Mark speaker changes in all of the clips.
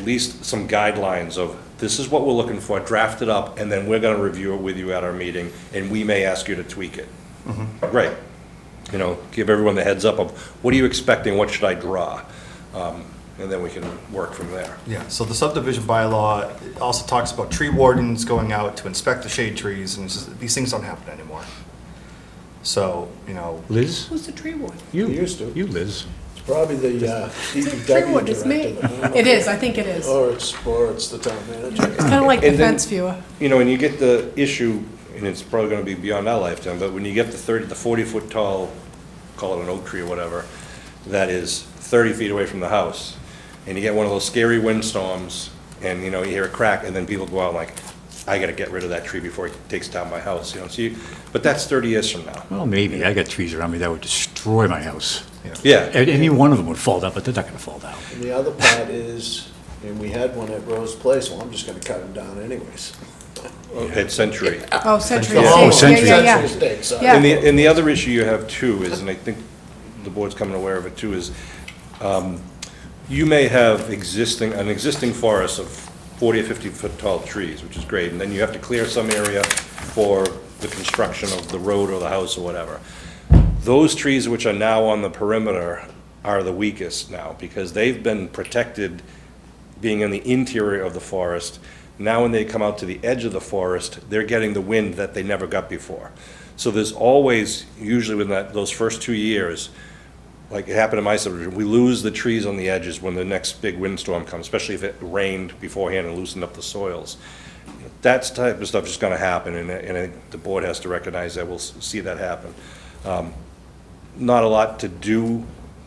Speaker 1: at least some guidelines of, this is what we're looking for, draft it up, and then we're gonna review it with you at our meeting, and we may ask you to tweak it. Great. You know, give everyone the heads up of, what are you expecting, what should I draw? Um, And then we can work from there.
Speaker 2: Yeah, so the subdivision bylaw also talks about tree wardens going out to inspect the shade trees, and it's just- these things don't happen anymore. So, you know,
Speaker 3: Liz?
Speaker 4: Who's the tree ward?
Speaker 3: You,
Speaker 5: used to.
Speaker 3: you, Liz.
Speaker 5: It's probably the uh,
Speaker 4: Tree
Speaker 5: DPW
Speaker 4: ward is me.
Speaker 5: director. Oh.
Speaker 4: It is, I think it is.
Speaker 5: Or it's, or it's the town manager.
Speaker 4: It's kind of like the
Speaker 1: And then-
Speaker 4: fence viewer.
Speaker 1: You know, and you get the issue, and it's probably gonna be beyond our lifetime, but when you get the thirty, the forty-foot tall, call it an oak tree or whatever, that is thirty feet away from the house, and you get one of those scary windstorms, and, you know, you hear a crack, and then people go out like, I gotta get rid of that tree before it takes down my house, you know, so you, but that's thirty years from now.
Speaker 3: Well, maybe. I got trees around me that would destroy my house.
Speaker 1: Yeah,
Speaker 3: And Any one of them would fall down, but they're not gonna fall down.
Speaker 5: And the other part is, and we had one at Rose Place, well, I'm just gonna cut them down anyways.
Speaker 1: it's century.
Speaker 4: Oh, Century
Speaker 5: Oh,
Speaker 4: Estates, yeah,
Speaker 3: Century.
Speaker 4: yeah, yeah.
Speaker 5: Century Estates, sorry.
Speaker 4: Yeah.
Speaker 1: And the, and the other issue you have too is, and I think the board's coming aware of it too, is um, you may have existing, an existing forest of 40 or 50 foot tall trees, which is great, and then you have to clear some area for the construction of the road or the house or whatever. Those trees which are now on the perimeter are the weakest now, because they've been protected being in the interior of the forest. Now when they come out to the edge of the forest, they're getting the wind that they never got before. So there's always, usually within that, those first two years, like it happened in my subdivision, we lose the trees on the edges when the next big windstorm comes, especially if it rained beforehand and loosened up the soils. That type of stuff is gonna happen, and, I- and I think the board has to recognize that, we'll s- see that happen not a lot to do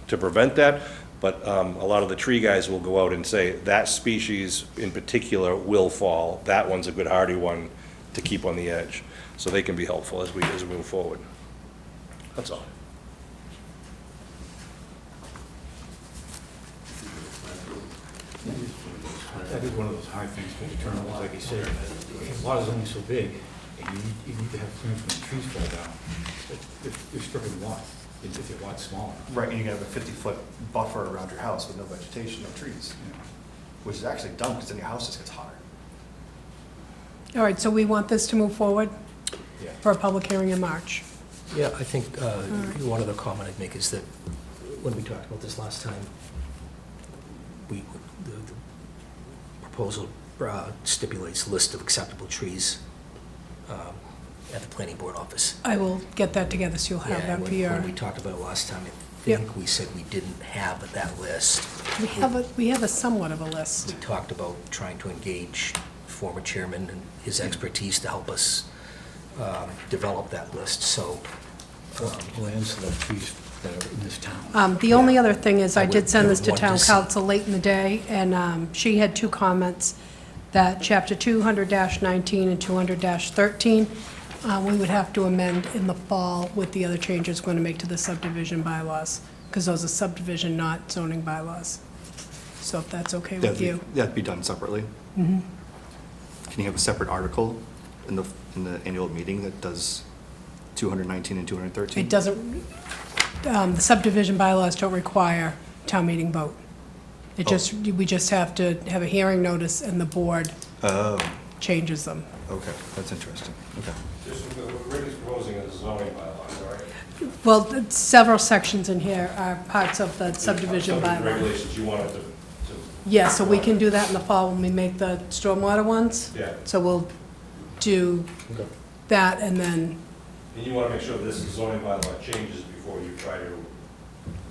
Speaker 1: to prevent that, but um, a lot of the tree guys will go out and say, that species in particular will fall, that one's a good hardy one to keep on the edge. So they can be helpful as we, as we move forward. That's all.
Speaker 6: That is one of those hard things to determine, like you said, a lot is only so big, and you need, you need to have clearance when the trees fall down. If- If you're stripping lot, if if your lot's smaller.
Speaker 2: right, and you have a fifty-foot buffer around your house with no vegetation, no trees, you know, which is actually dumb, because then your house just gets hotter.
Speaker 4: All right, so we want this to move forward
Speaker 6: Yeah.
Speaker 4: for a public hearing in March.
Speaker 7: Yeah, I think uh, one other comment I'd make is that when we talked about this last time, we, the the proposal uh, stipulates list of acceptable trees um, at the planning board office.
Speaker 4: I will get that together, so you'll have
Speaker 7: Yeah,
Speaker 4: that
Speaker 7: when-
Speaker 4: for your,
Speaker 7: When we talked about it last time, I
Speaker 4: Yep.
Speaker 7: think we said we didn't have that list.
Speaker 4: we have a, we have a somewhat of a list.
Speaker 7: We talked about trying to engage former chairman and his expertise to help us um, develop that list, so um,
Speaker 6: Lands that have trees that are in this town.
Speaker 4: Um, The only other thing is, I
Speaker 7: I
Speaker 4: did
Speaker 7: would
Speaker 4: send this to
Speaker 7: want to
Speaker 4: town
Speaker 7: see-
Speaker 4: council late in the day, and um, she had two comments, that chapter 200-19 and 200-13, uh, we would have to amend in the fall with the other changes we're going to make to the subdivision bylaws, because those are subdivision, not zoning bylaws. So if that's okay
Speaker 2: That'd
Speaker 4: with
Speaker 2: be-
Speaker 4: you.
Speaker 2: That'd be done separately. Mm-hmm. Can you have a separate article in the, in the annual meeting that does two hundred nineteen and two hundred thirteen?
Speaker 4: It doesn't, um, the subdivision bylaws don't require town meeting vote. It just, we just have to have a hearing notice, and the board Oh. changes them.
Speaker 2: Okay, that's interesting, okay.
Speaker 1: What uh, Rick is proposing is zoning bylaw, right?
Speaker 4: Well, th- several sections in here are parts of the subdivision bylaw.
Speaker 1: Regulations you wanted to,
Speaker 4: Yeah, so we can do that in the fall when we make the stormwater ones.
Speaker 1: Yeah.
Speaker 4: So we'll do that and then
Speaker 1: and you wanna make sure this zoning bylaw changes before you try to.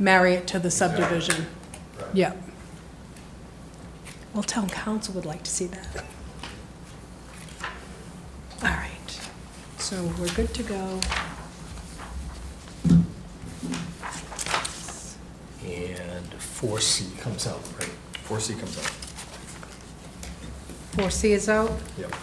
Speaker 4: marry it to the subdivision.
Speaker 1: Right.
Speaker 4: Yeah. Well, town council would like to see that. All right, so we're good to go.
Speaker 7: And 4C comes out, right?
Speaker 2: Four C comes out,
Speaker 4: Four C is out.
Speaker 2: yep.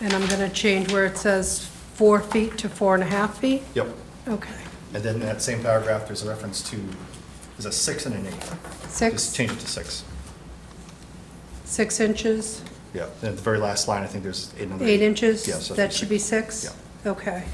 Speaker 4: And I'm going to change where it says four feet to four and a half feet?
Speaker 2: Yep.
Speaker 4: Okay.
Speaker 2: And then in that same paragraph, there's a reference to, there's a six and an eight. Just
Speaker 4: Six,
Speaker 2: change it to six.
Speaker 4: six inches,
Speaker 2: Yeah, and at the very last line, I think there's eight and an
Speaker 4: eight inches?
Speaker 2: Yes. I
Speaker 4: That
Speaker 2: think
Speaker 4: should
Speaker 2: six.
Speaker 4: be six? Okay.